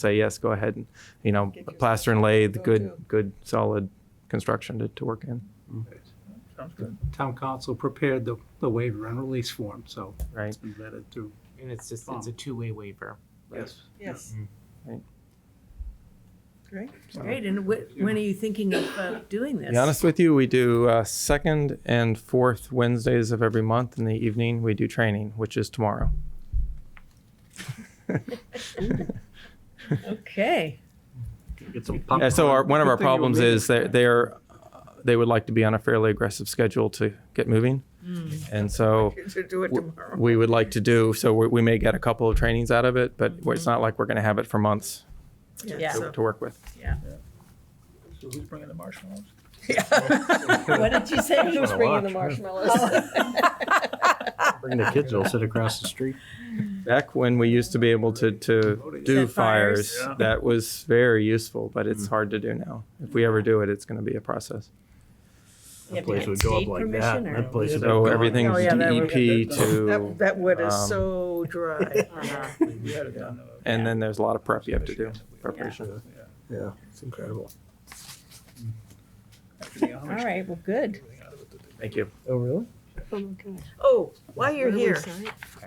say, yes, go ahead and, you know, plaster and lathe, good, good, solid construction to, to work in, Sounds good. town council prepared the, the waiver and release form, so right? it's been vetted through. And it's just, it's a two-way waiver. Yes. Yes. Mm-hmm. Right. Great. Great, and wh- when are you thinking of uh, doing this? Be honest with you, we do uh, second and fourth Wednesdays of every month in the evening. We do training, which is tomorrow. Okay, Get some Yeah, so our, one of our Good thing you were problems reading. is that they're they would like to be on a fairly aggressive schedule to get moving, and so You should do it w- tomorrow. we would like to do so. We, we may get a couple of trainings out of it, but it's not like we're going to have it for months Yeah. to, so- to work with. So who's bringing the marshmallows? what did you say? Who's bringing the marshmallows? Bring the kids, they'll sit across the street. Back when we used to be able to to do Set fires, fires. Yeah. that was very useful, but Mm. it's hard to do now. If we ever do it, it's going to be a process. That place would go up like that. That place would So go up. everything Oh, yeah, from that would EP get- to, That, that wood is Um, so dry. Uh-huh. Uh-huh. We had it done. uh, and then there's a lot of prep you have to do, preparation. Yeah, it's incredible. after the All Amish right, well, good. took everything out of it, did they? Thank you. Oh, really? Oh, while you're here,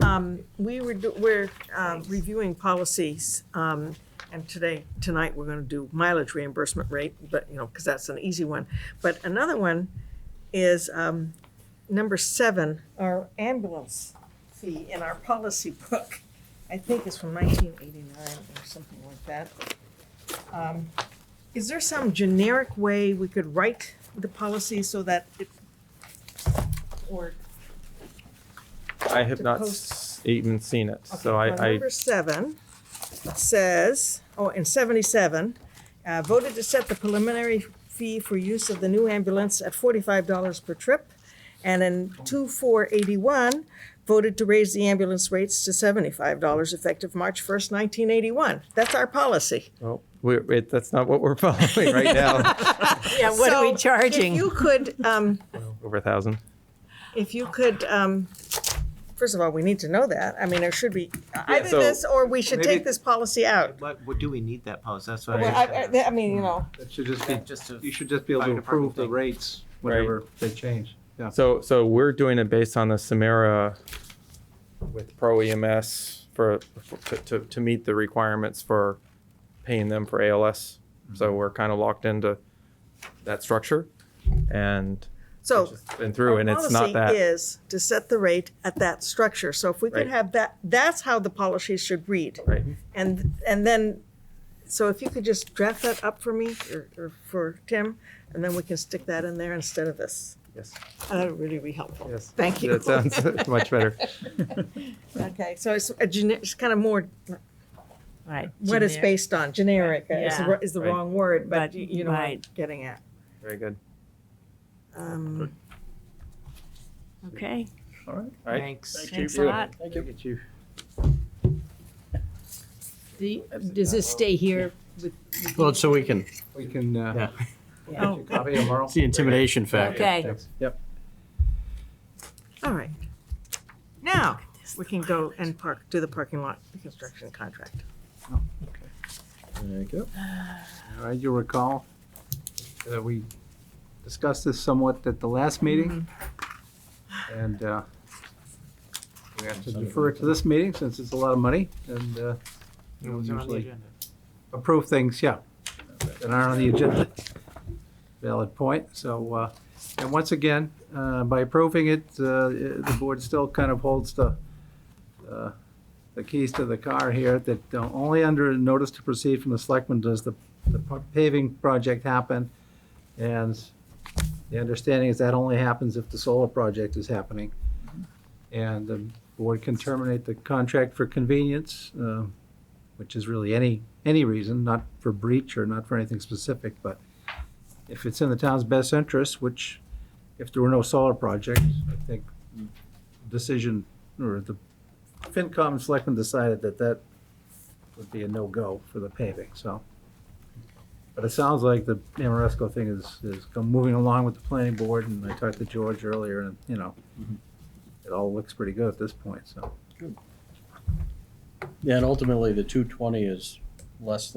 um, we were, do- we're, um, reviewing policies, um, and today, tonight, we're gonna do mileage reimbursement rate, but, you know, cause that's an easy one. But another one is, um, number seven, our ambulance fee in our policy book. I think it's from nineteen eighty-nine or something like that. Um, Is there some generic way we could write the policy so that it, or I have To not post- s- even seen it, so Okay, well, I, I, Number seven says, oh, in seventy-seven, uh, voted to set the preliminary fee for use of the new ambulance at forty-five dollars per trip. And in two four eighty-one, voted to raise the ambulance rates to seventy-five dollars effective March first, nineteen eighty-one. That's our policy. well, we're, it, that's not what we're following right now. Yeah, what are So, we if charging? If you could, um, Over a thousand. if you could, um, first of all, we need to know that. I mean, there should be either so this or we should maybe- take this policy out. What, what do we need that post? That's what Well, I, I, I mean, you know. That should just be, Just you to, should just be able to Fire department approve the thing. rates whenever they change. Yeah. So, so we're doing it based on the Samara with Pro EMS for, for- to, to meet the requirements for paying them for ALS. So we're kind of locked into that structure and So it's just been through and it's not Our policy that. is to set the rate at that structure. So if we Right. could have that, that's how the policy should read. Right. And, and then, so if you could just draft that up for me or, or for Tim, and then we can stick that in there instead of this. Yes. That would really be helpful. Yes. Thank you. That sounds much better. Okay, so it's a gene, it's kind of more, Right, what it's generic. based on, generic is, the- Yeah. is the Right. wrong word, but But- you you know what I'm right. getting at. Very good. Um, Okay, All right. Right. thanks. thanks a lot. Thank you. The- Does this stay here with? with Well, you? it's so we can, We can, uh, Yeah. copy tomorrow. it's the intimidation factor. Okay, Yep. All right. Now, we can go and park, do the parking lot construction contract. There you go. All right, you recall that we discussed this somewhat at the last meeting. Mm-hmm. And uh, we have to defer it to this meeting since it's a lot of money and uh, we Those are on the usually agenda. approve things, yeah, that aren't on the agenda. Valid point, so, uh, and once again, uh, by approving it, uh, the board still kind of holds the, uh, the keys to the car here, that uh, only under a notice to proceed from the selectmen does the the paving project happen. And the understanding is that only happens if the solar project is happening. And the board can terminate the contract for convenience, uh, which is really any, any reason, not for breach or not for anything specific, but if it's in the town's best interest, which if there were no solar project, I think decision, or the FinCom and Selectmen decided that that would be a no-go for the paving, so. But it sounds like the Amoresco thing is, is go- moving along with the planning board, and I talked to George earlier, and, you know, it all looks pretty good at this point, so. Yeah, and ultimately, the two twenty is less